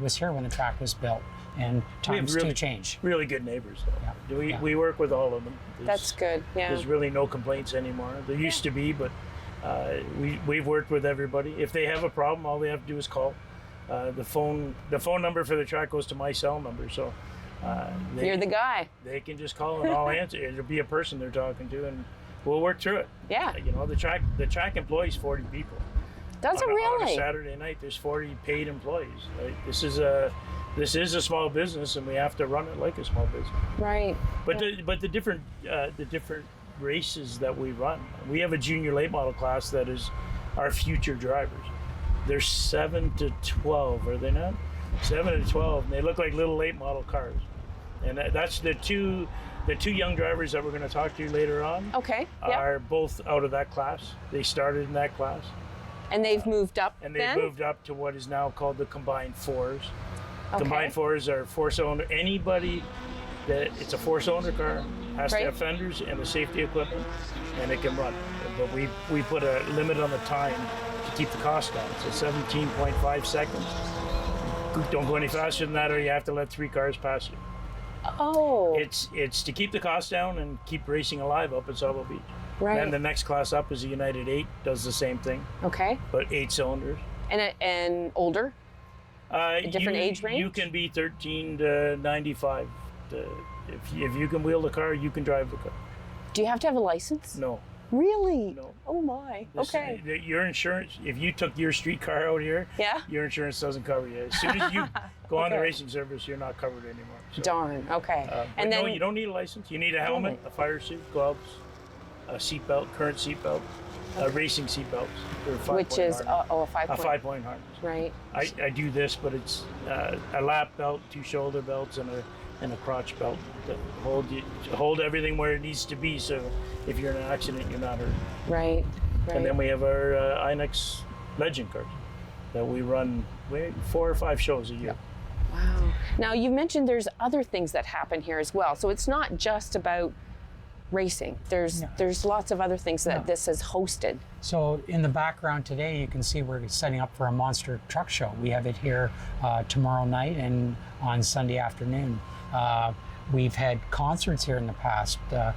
was here when the track was built, and times do really- change. Really good neighbors. Though. Yeah, Do We, yeah. we work with all of them. There's- That's good. Yeah. There's really no complaints anymore. There used to be, but uh, we we've worked with everybody. If they have a problem, all they have to do is call. Uh, the phone the phone number for the track goes to my cell number, so uh, they, You're the guy. they can just call and I'll answer. It'll be a person they're talking to, and we'll work through it. Yeah. You know, the track the track employs 40 people. Does it on a- on a really? Saturday night, there's 40 paid employees. Like, this is a this is a small business, and we have to run it like a small business. Right. But the, but the different uh, the different races that we run, we have a junior late model class that is our future drivers. They're seven to twelve, are they not? Seven to twelve, and they look like little late model cars. And that- that's the two the two young drivers that we're going to talk to later on Okay. Oh, Yeah. are both out of that class. They started in that class, And they've moved up and they then? moved up to what is now called the combined fours. Okay. Combined fours are four cylinder. Anybody that it's a four cylinder car has Right. to have fenders and the safety equipment, and it can run. But we we put a limit on the time to keep the cost down. So 17.5 seconds. Don't go any faster than that, or you have to let three cars pass you. Oh, It's it's to keep the cost down and keep racing alive up at Sabo Beach. right. Then the next class up is the United Eight, does the same thing, okay. but eight cylinders. And, a- and older? Uh, different you- age range? You can be 13 to 95. The- if, you- if you can wheel the car, you can drive the car. Do you have to have a license? No. Really? No. Oh, my. This- okay. the- your insurance, if you took your street car out here, Yeah? your insurance doesn't cover you. As soon as you go on the Okay. racing service, you're not covered anymore. So, Darn. Okay. uh, but and then, Oh. no, you don't need a license. You need a helmet, a fire suit, gloves, a seatbelt, current seatbelt, uh, racing seatbelts. they're five which point is, harness. uh, oh, a five a point. five point harness. Right. I, I do this, but it's uh, a lap belt, two shoulder belts, and a and a crotch belt that hold you to hold everything where it needs to be. So if you're in an accident, you're not hurt. Right. Right. And then we have our uh, Inex Legend card that we run we, four or five shows a year. Wow. Now, you mentioned there's other things that happen here as well. So it's not just about racing. There's there's lots of other things that No. this has hosted. So in the background today, you can see we're setting up for a monster truck show. We have it here uh, tomorrow night and on Sunday afternoon. Uh, we've had concerts here in the past. Uh,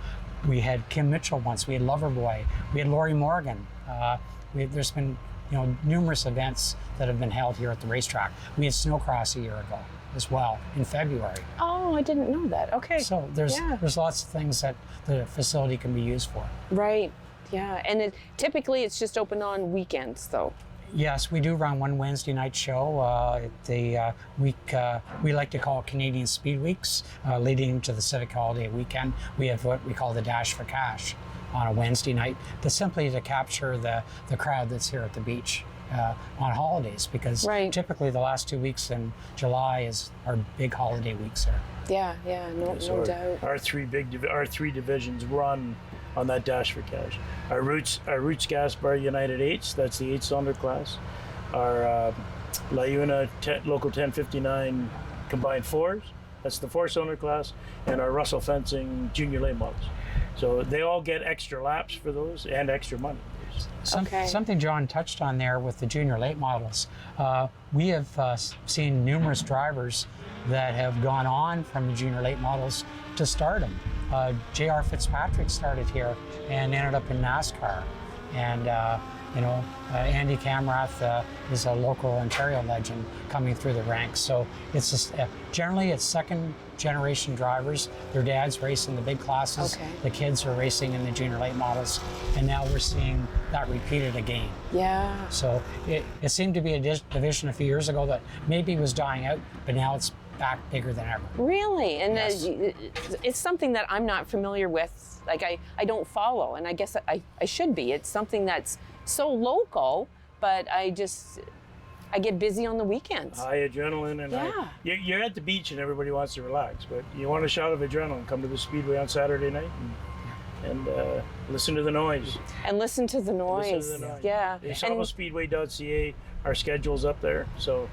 we had Kim Mitchell once. We had Loverboy. We had Lori Morgan. Uh, we, there's been you know numerous events that have been held here at the racetrack. We had Snowcross a year ago as well in February. Oh, I didn't know that. Okay. So there's Yeah. there's lots of things that the facility can be used for. Right. Yeah. And it, typically it's just open on weekends, though. Yes, we do run one Wednesday night show. Uh, at the uh, week uh, we like to call Canadian Speed Weeks, uh, leading to the Civic Holiday weekend. We have what we call the Dash for Cash on a Wednesday night, but simply to capture the the crowd that's here at the beach uh, on holidays, because Right. typically the last two weeks in July is our big holiday weeks here. Yeah. Yeah. No, So no our, doubt. our three big div- our three divisions run on that dash for cash. Our roots our roots gas bar United eights. That's the eight cylinder class. Our uh, Layuna te- local ten fifty nine combined fours. That's the four cylinder class, and our Russell fencing junior late models. So they all get extra laps for those and extra money. Some, Okay. Something John touched on there with the junior late models. Uh, we have uh, s- seen numerous drivers that have gone on from the junior late models to stardom. Uh, J.R. Fitzpatrick started here and ended up in NASCAR. And, uh, you know, uh, Andy Camrath uh, is a local Ontario legend coming through the ranks. So it's just, uh, generally it's second generation drivers. Their dads race in the big classes. Okay. The kids are racing in the junior late models, and now we're seeing that repeated again. Yeah. So it, it seemed to be a dis- division a few years ago that maybe was dying out, but now it's back bigger than ever. Really? And uh, Yes. y- y- it's something that I'm not familiar with. Like, I, I don't follow, and I guess I, I should be. It's something that's so local, but I just, I get busy on the weekends. High adrenaline, and high- Yeah. you're, you're at the beach and everybody wants to relax, but you want a shot of adrenaline. Come to the speedway on Saturday night and, and uh, listen to the noise. and listen to the Listen to noise. the noise. Yeah. It's And- almostspeedway.ca. Our schedule's up there, so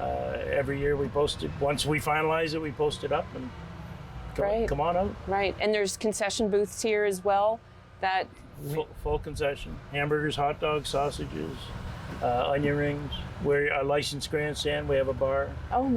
uh, every year we post it. Once we finalize it, we post it up and come, Right. come on out. right. And there's concession booths here as well. That Full, full concession: hamburgers, hot dogs, sausages, uh, onion rings. We're a licensed grandstand. We have a bar. Oh,